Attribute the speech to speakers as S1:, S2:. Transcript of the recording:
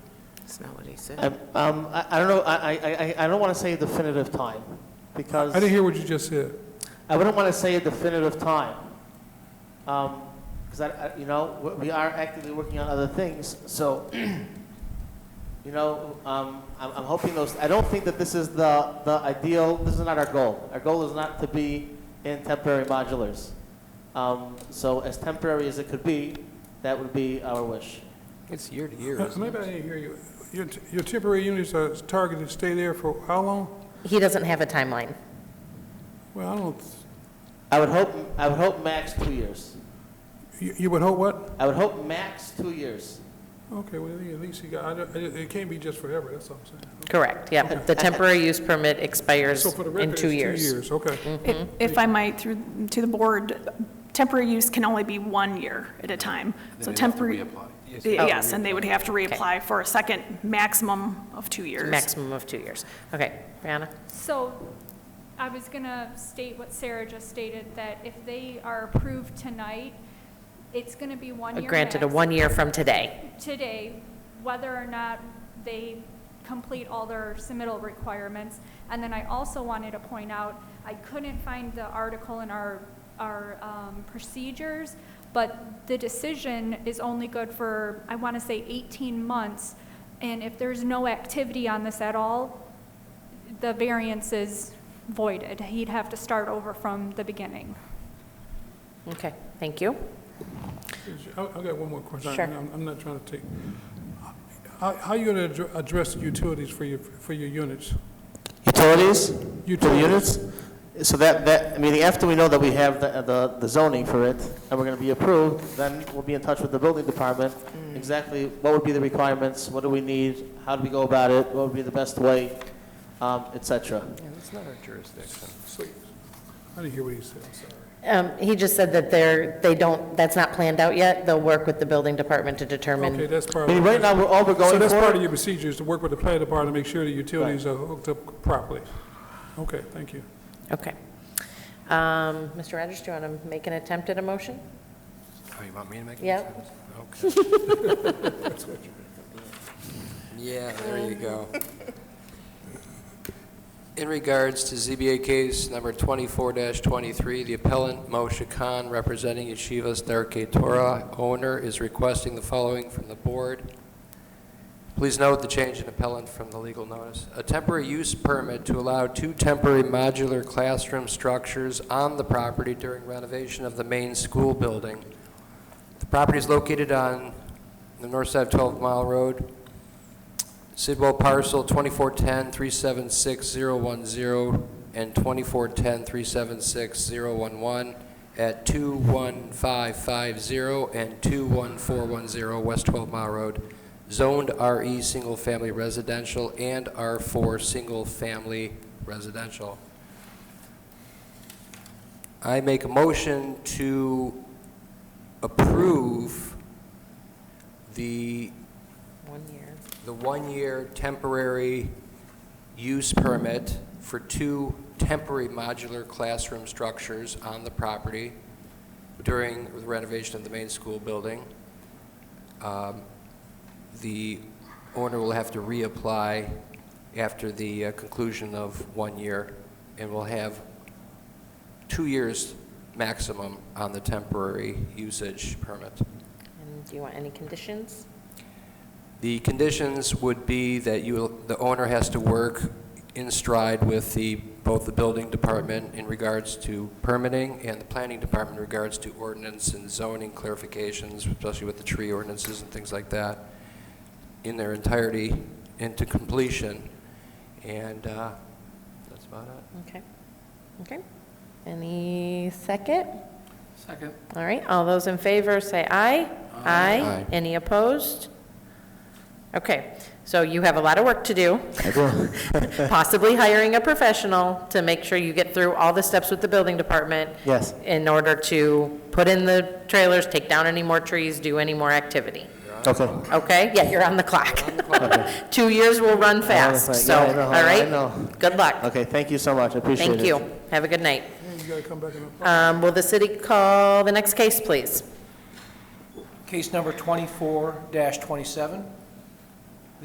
S1: That's not what he
S2: I-
S1: said.
S2: Um, I, I don't know, I, I, I- I don't want to say a definitive time, because
S3: I didn't hear what you just said.
S2: I wouldn't want to say a definitive time. Um, because I, I, you know, we- we are actively working on other things, so, you know, um, I'm, I'm hoping those, I don't think that this is the, the ideal, this is not our goal. Our goal is not to be in temporary modulars. Um, so as temporary as it could be, that would be our wish.
S4: It's year to year,
S3: Uh,
S4: isn't
S3: Maybe I
S4: it?
S3: didn't hear you. Your t- Your temporary units are targeted to stay there for how long?
S1: He doesn't have a timeline.
S3: Well, I don't,
S2: I would hope, I would hope max two years.
S3: you you would hope what?
S2: I would hope max two years.
S3: Okay, well, at least you got, I don't- it it can't be just forever, that's all I'm saying.
S1: Correct, yeah. The temporary use permit expires
S3: So for the
S1: in
S3: record, it's
S1: two years.
S3: Okay.
S2: Mm.
S5: If- If I might, through, to the board, temporary use can only be one year at a time. So temporary, yes, and they would have to reapply for a second maximum of two years.
S1: Maximum of two years. Okay, Brianna?
S6: So I was going to state what Sarah just stated, that if they are approved tonight, it's going to be one year.
S1: Uh, Granted, a
S6: max
S1: one year from today.
S6: Today, whether or not they complete all their submittal requirements. And then I also wanted to point out, I couldn't find the article in our, our um, procedures, but the decision is only good for, I want to say 18 months. And if there's no activity on this at all, the variance is voided. He'd have to start over from the beginning.
S1: Okay, thank you.
S3: I- I've got one more question.
S1: Sure.
S3: I'm I'm not trying to take, how how are you going to address the utilities for your, for your units?
S2: Utilities? For the
S3: Utilities.
S2: units? So that, that, I mean, after we know that we have the- the the zoning for it, and we're going to be approved, then we'll be in touch with the building department,
S3: Hmm.
S2: exactly what would be the requirements, what do we need, how do we go about it, what would be the best way, um, et cetera.
S4: Yeah, that's not our jurisdiction.
S3: I didn't hear what he said, I'm sorry.
S1: Um, He just said that they're, they don't, that's not planned out yet. They'll work with the building department to
S3: Okay,
S1: determine.
S3: that's part
S2: I
S3: of.
S2: mean, right now, we're all we're
S3: So
S2: going
S3: that's part of
S2: for,
S3: your procedure, is to work with the planning department to make sure the utilities are hooked up properly. Okay, thank you.
S1: Okay. Um, Mr. Rogers, do you want to make an attempt at a motion?
S4: Oh, you want me to make it?
S1: Yep.
S4: Okay. Yeah, there you go. In regards to ZBA case number 24-23, the appellant, Moshe Khan, representing Yeshivas Darkei Torah owner, is requesting the following from the board. Please note the change in appellant from the legal notice. A temporary use permit to allow two temporary modular classroom structures on the property during renovation of the main school building. The property is located on the north side of 12 Mile Road, Sidwell parcel 2410-376010 and 2410-376011 at 21550 and 21410 West 12 Mile Road, zoned RE Single Family Residential and R4 Single Family Residential. I make a motion to approve the
S1: One year.
S4: the one-year temporary use permit for two temporary modular classroom structures on the property during the renovation of the main school building. Um, The owner will have to reapply after the uh, conclusion of one year, and will have two years maximum on the temporary usage permit.
S1: And do you want any conditions?
S4: The conditions would be that you, the owner has to work in stride with the, both the building department in regards to permitting and the planning department in regards to ordinance and zoning clarifications, especially with the tree ordinances and things like that, in their entirety into completion. And uh, that's about it.
S1: Okay. Okay. Any second?
S4: Second.
S1: All right, all those in favor, say aye. Aye.
S4: Aye.
S1: Any opposed? Okay, so you have a lot of work to do. Possibly hiring a professional to make sure you get through all the steps with the building department
S2: yes.
S1: in order to put in the trailers, take down any more trees, do any more activity.
S2: Okay.
S1: Okay? Yeah, you're on the clock. Two years will run fast,
S2: clock.
S1: so,
S2: Yeah, I know,
S1: all right?
S2: I know.
S1: Good luck.
S2: Okay, thank you so much, I appreciate it.
S1: Thank you. Have a good night.
S3: You gotta come back and
S1: Um, Will the city call the next case, please?
S7: Case number 24-27,